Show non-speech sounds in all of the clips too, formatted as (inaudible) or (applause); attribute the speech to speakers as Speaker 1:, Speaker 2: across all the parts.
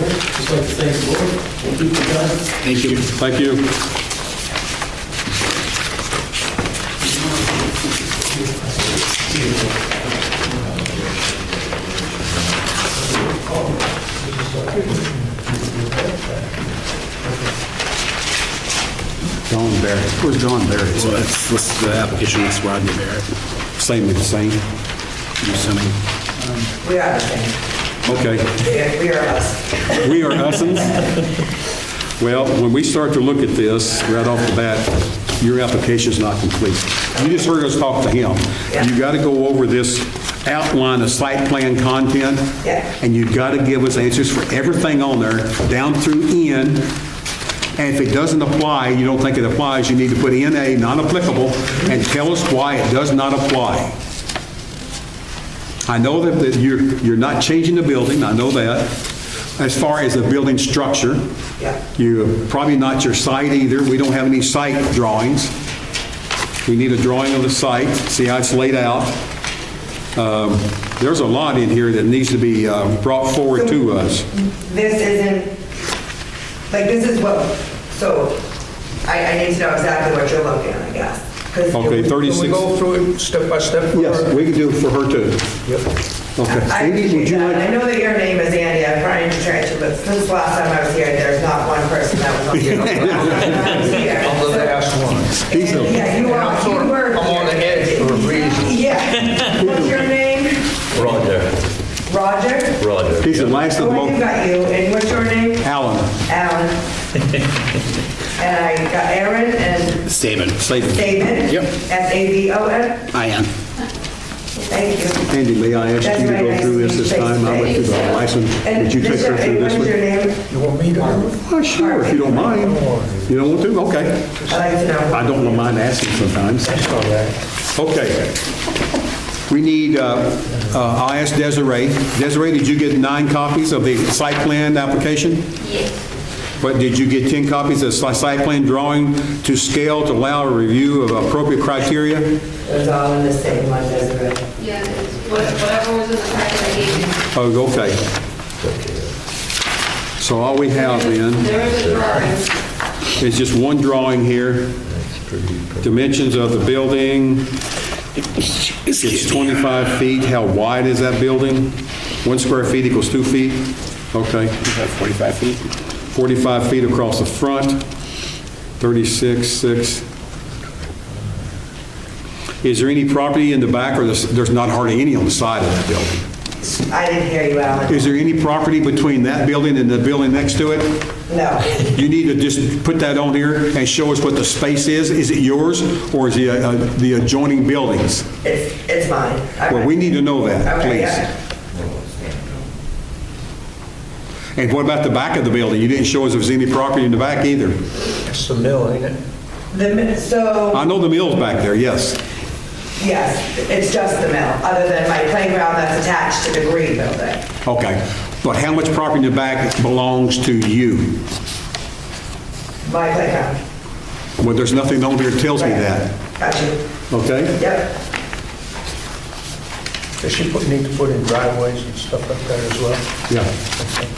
Speaker 1: Just like to thank the board. Thank you for your time.
Speaker 2: Thank
Speaker 3: Thank you.
Speaker 2: you. John Barrett, where's John Barrett?
Speaker 3: Well, that's, that's the application, that's Rodney Barrett.
Speaker 2: Same, same,
Speaker 3: Yosemite.
Speaker 4: We are the same.
Speaker 2: okay.
Speaker 4: We are- We are us.
Speaker 2: We are Hussons. Well, when we start to look at this, right off the bat, your application's not complete. You just heard us talk to him. You gotta go over this outline of site plan content.
Speaker 4: Yeah.
Speaker 2: And you gotta give us answers for everything on there, down through N. And if it doesn't apply, you don't think it applies, you need to put NA, non-applicable, and tell us why it does not apply. I know that, that you're, you're not changing the building, I know that. As far as the building structure,
Speaker 4: Yeah.
Speaker 2: you're probably not your site either, we don't have any site drawings. We need a drawing of the site, see how it's laid out. Um, There's a lot in here that needs to be uh, brought forward to us.
Speaker 4: This isn't, like, this is what, so I, I need to know exactly what you're looking at, I guess. 'Cause
Speaker 2: Okay,
Speaker 5: Can we
Speaker 2: 36,
Speaker 5: go through it step by step?
Speaker 2: yes, we can do it for her too. Okay.
Speaker 4: I
Speaker 2: Andy,
Speaker 4: appreciate
Speaker 2: would you
Speaker 4: that. And I
Speaker 2: like,
Speaker 4: know that your name is Andy, I'm trying to try to, but since last time I was here, there's not one person that was
Speaker 2: (laughs)
Speaker 4: on here. I was here.
Speaker 5: I'll let her ask one.
Speaker 2: He's a-
Speaker 4: Yeah, you
Speaker 5: I'm
Speaker 4: are,
Speaker 5: sort
Speaker 4: you
Speaker 5: of-
Speaker 4: were.
Speaker 5: I'm on the edge for a reason.
Speaker 4: Yeah. What's your name?
Speaker 6: Roger,
Speaker 4: Roger?
Speaker 6: Roger.
Speaker 2: he's the last of
Speaker 4: Oh,
Speaker 2: the,
Speaker 4: I do
Speaker 2: mo-
Speaker 4: got you, and what's your name?
Speaker 2: Alan, (laughs)
Speaker 4: Alan. And I got Aaron and
Speaker 3: Saban. Saban.
Speaker 4: David.
Speaker 3: Yep.
Speaker 4: S-A-B-O-N.
Speaker 3: I am.
Speaker 4: Thank you.
Speaker 2: Andy, may I ask
Speaker 4: That's
Speaker 2: you to
Speaker 4: very
Speaker 2: go
Speaker 4: nice
Speaker 2: through this
Speaker 4: to
Speaker 2: this
Speaker 4: meet you
Speaker 2: time? I went through the license,
Speaker 4: And
Speaker 2: did you take
Speaker 4: this-
Speaker 2: her through
Speaker 4: and
Speaker 2: this
Speaker 4: What
Speaker 2: one?
Speaker 4: is your name?
Speaker 5: You want me to?
Speaker 2: Well, sure, if you don't mind. You don't want to? Okay.
Speaker 4: I'd like to know.
Speaker 2: I don't mind asking sometimes.
Speaker 5: That's all right.
Speaker 2: Okay. We need, uh, uh, I asked Desiree. Desiree, did you get nine copies of the site plan application?
Speaker 7: Yes,
Speaker 2: But did you get 10 copies of si- site plan drawing to scale to allow a review of appropriate criteria?
Speaker 4: It was all in the same one, Desiree.
Speaker 7: yeah, it's what- whatever was in the packet I gave you.
Speaker 2: Oh, okay. So all we have then
Speaker 7: There was a drawing.
Speaker 2: is just one drawing here. Dimensions of the building. It's 25 feet. How wide is that building? One square feet equals two feet? Okay. 45 feet. 45 feet across the front, 36, 6. Is there any property in the back, or there's there's not hardly any on the side of that building?
Speaker 4: I didn't hear you, Alan.
Speaker 2: Is there any property between that building and the building next to it?
Speaker 4: No.
Speaker 2: You need to just put that on here and show us what the space is. Is it yours, or is it uh, the adjoining buildings?
Speaker 4: It's, it's mine. All
Speaker 2: Well,
Speaker 4: right.
Speaker 2: we need to know that,
Speaker 4: Okay, yeah.
Speaker 2: please. And what about the back of the building? You didn't show us if there's any property in the back either.
Speaker 5: That's the mill, ain't it?
Speaker 4: The, mi- so,
Speaker 2: I know the mill's back there, yes.
Speaker 4: yes, it's just the mill, other than my playground that's attached to the green building.
Speaker 2: Okay. But how much property in the back belongs to you?
Speaker 4: My playground.
Speaker 2: Well, there's nothing on here that tells me that,
Speaker 4: Got you.
Speaker 2: okay?
Speaker 4: Yep.
Speaker 5: Does she put- need to put in driveways and stuff like that as well?
Speaker 2: Yeah.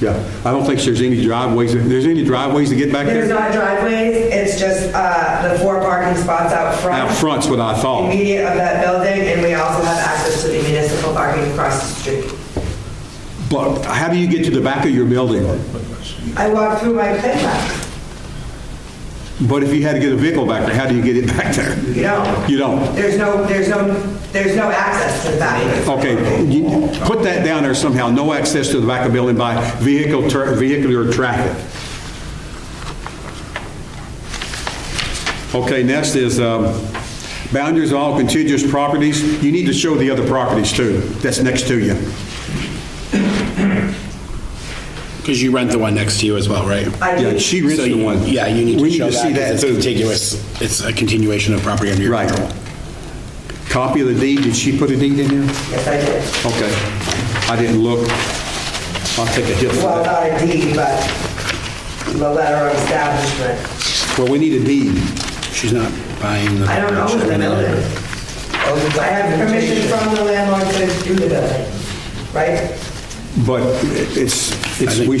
Speaker 2: Yeah. I don't think there's any driveways, there's any driveways to get back
Speaker 4: There's
Speaker 2: there?
Speaker 4: not driveways, it's just uh, the four parking spots out
Speaker 2: Out
Speaker 4: front,
Speaker 2: front's what I thought.
Speaker 4: immediate of that building, and we also have access to the municipal parking across the street.
Speaker 2: But how do you get to the back of your building?
Speaker 4: I walk through my playground.
Speaker 2: But if you had to get a vehicle back there, how do you get it back there?
Speaker 4: You don't.
Speaker 2: You don't?
Speaker 4: There's no, there's no, there's no access to the back.
Speaker 2: Okay, you- put that down there somehow, no access to the back of building by vehicle, tra- vehicular traffic. Okay, next is um, boundaries of all contiguous properties. You need to show the other properties too, that's next to you.
Speaker 3: Because you rent the one next to you as well, right?
Speaker 4: I
Speaker 2: Yeah,
Speaker 4: do.
Speaker 2: she rents
Speaker 3: So
Speaker 2: the
Speaker 3: you-
Speaker 2: one.
Speaker 3: Yeah, you need
Speaker 2: We
Speaker 3: to show
Speaker 2: see
Speaker 3: that 'cause it's
Speaker 2: too.
Speaker 3: contiguous. It's a continuation of property under your
Speaker 2: Right.
Speaker 3: control.
Speaker 2: Copy of the deed, did she put a deed in there?
Speaker 4: Yes, I did.
Speaker 2: Okay, I didn't look. I'll take a hit for
Speaker 4: Well,
Speaker 2: that.
Speaker 4: not a deed, but the letter of establishment.
Speaker 2: Well, we need a deed.
Speaker 3: She's not buying the.
Speaker 4: I don't own the building.
Speaker 5: Other than-
Speaker 4: I have permission from the landlord to do the building, right?
Speaker 2: But it's, it's, we